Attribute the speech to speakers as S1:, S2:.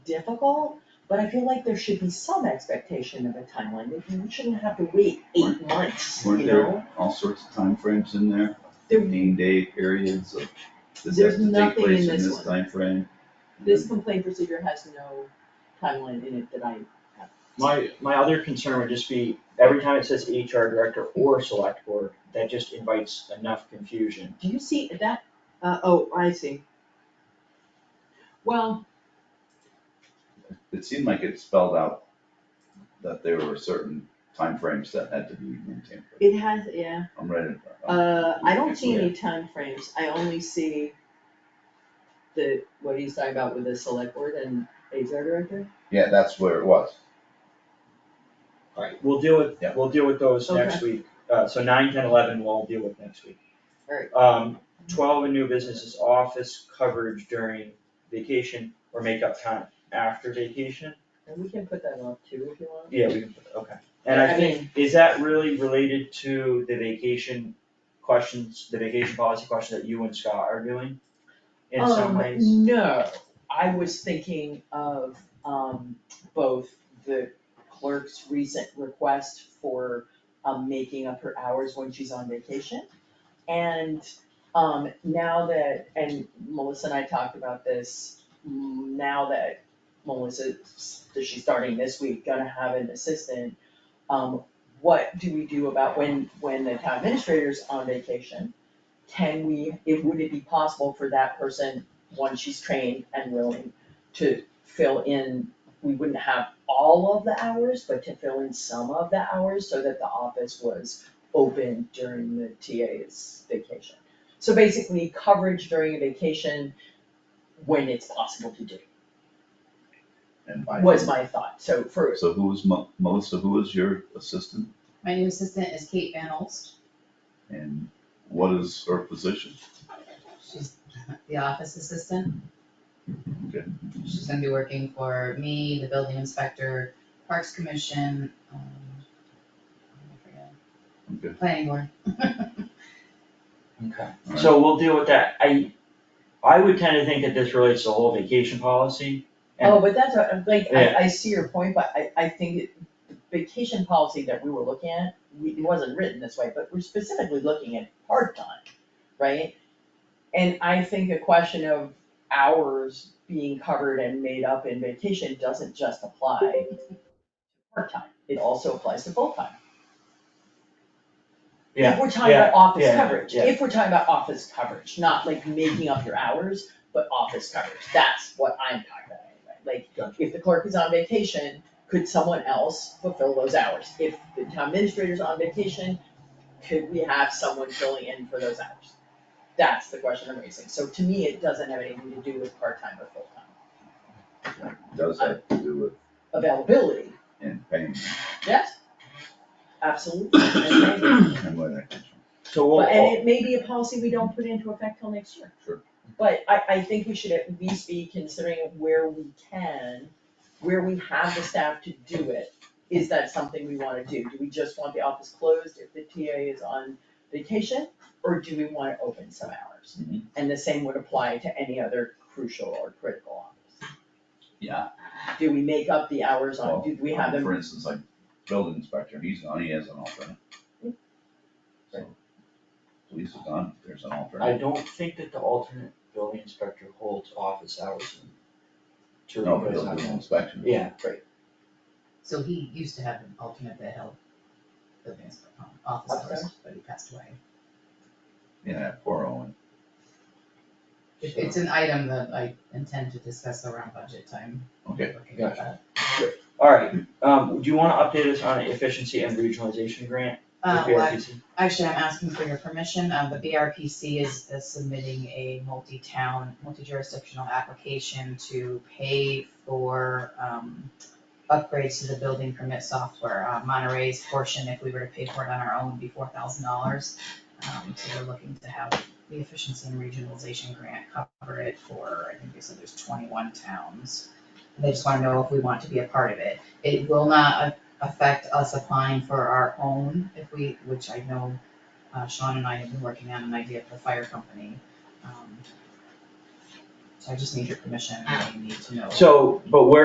S1: difficult, but I feel like there should be some expectation of a timeline, Like, you shouldn't have to wait eight months, you
S2: Weren't
S1: know?
S2: there all sorts of time frames in there,
S1: There,
S2: fifteen day periods of, this
S1: There's
S2: has to take
S1: nothing
S2: place
S1: in
S2: in
S1: this one.
S2: this time frame.
S1: this
S2: Mm-hmm.
S1: complaint procedure has no timeline in it that I have.
S3: My, my other concern would just be, every time it says HR director or select board, that just invites enough confusion.
S1: Do you see that, uh, oh, I see. Well,
S2: It seemed like it spelled out that there were certain time frames that had to be maintained.
S1: it has, yeah,
S2: I'm ready. I'm-
S1: Uh, I don't see any time frames. I only see the, what he's talking about with the select board and HR director.
S2: Yeah, that's where it was.
S3: We'll deal with,
S2: Yeah.
S3: we'll deal with those next week, uh, so nine, ten, eleven, we'll all deal with next week.
S1: Alright.
S3: Um, twelve, a new business is office coverage during vacation or make up time after vacation,
S1: And we can put that up too if you want.
S3: yeah, we, okay. And I
S1: I
S3: think, is that really related to the vacation questions, the vacation policy question that you and Scott are doing? In some
S1: Um,
S3: ways?
S1: No, I was thinking of, um, both the clerk's recent request for, um, making up her hours when she's on vacation. And, um, now that, and Melissa and I talked about this, mm, now that Melissa, that she's starting this week, gonna have an assistant, um, what do we do about when, when the town administrator's on vacation? can we, it, would it be possible for that person, once she's trained and willing, to fill in, we wouldn't have all of the hours, but to fill in some of the hours so that the office was open during the TA's vacation. So basically, coverage during a vacation when it's possible to do,
S2: And by-
S1: was my thought, so for,
S2: So who was Mo- Melissa, who was your assistant
S4: My new assistant is Kate Van Olst.
S2: and what is her position?
S4: She's the office assistant.
S2: Okay.
S4: She's gonna be working for me, the building inspector, Parks Commission, um, I forget,
S2: Okay,
S4: planning board.
S3: Okay,
S2: Alright.
S3: so we'll deal with that, I, I would tend to think that this relates to the whole vacation policy. and-
S1: oh, but that's, what- like,
S3: Yeah.
S1: I, I see your point, but I, I think it- the vacation policy that we were looking at, we, it wasn't written this way, but we're specifically looking at part-time, right? And I think the question of hours being covered and made up in vacation doesn't just apply to part-time, it also applies to full-time.
S3: Yeah,
S1: If we're talking about office
S3: yeah,
S1: coverage,
S3: yeah.
S1: if we're talking about office coverage, not like making up your hours, but office coverage, that's what I'm talking about anyway. Like,
S3: Gotcha.
S1: if the clerk is on vacation, could someone else fulfill those hours? If the town administrator's on vacation, could we have someone filling in for those hours? That's the question I'm raising, so to me, it doesn't have anything to do with part-time or full-time
S2: does have to do with
S1: availability,
S2: and paying
S1: yes? Absolutely, and maybe-
S2: and where that comes from.
S3: So
S1: But- And
S3: we'll,
S1: it may be a policy we don't put into effect till next year.
S2: Sure.
S1: But I, I think we should at least be considering where we can, where we have the staff to do it. Is that something we wanna do? Do we just want the office closed if the TA is on vacation? Or do we wanna open some hours?
S2: Mhm.
S1: And the same would apply to any other crucial or critical office.
S2: Yeah,
S1: Do we make up the hours on,
S2: well,
S1: do we have
S2: um,
S1: them
S2: for instance, like building inspector, he's on, he has an alternate. So, Police is on, there's an
S3: I
S2: alternate.
S3: don't think that the alternate building inspector holds office hours in. to
S2: No,
S3: replace
S2: building
S3: hours.
S2: inspection.
S3: Yeah,
S4: So he used to have an alternate that held the business- um, office hours,
S1: Upstairs?
S4: but he passed away.
S2: Yeah, oh poor Owen.
S4: It- It's an item that I intend to discuss around budget time.
S2: Okay.
S4: Looking at that.
S3: alright, um, do you wanna update us on efficiency and regionalization grant? with
S4: Uh, well,
S3: PRPC?
S4: Actually, I'm asking for your permission, uh, the BRPC is is submitting a multi-town, multi-jurisdictional application to pay for, um, upgrades to the building permit software, uh, Monterey's portion, if we were to pay for it on our own, would be four thousand dollars. Um, so we're looking to have the efficiency and regionalization grant cover it for, I think they said there's twenty-one towns. And they just wanna know if we want to be a part of it. It will not a- affect us applying for our own if we, which I know uh, Sean and I have been working on an idea for the fire company. Um, So I just need your permission, I need to know.
S3: So, but where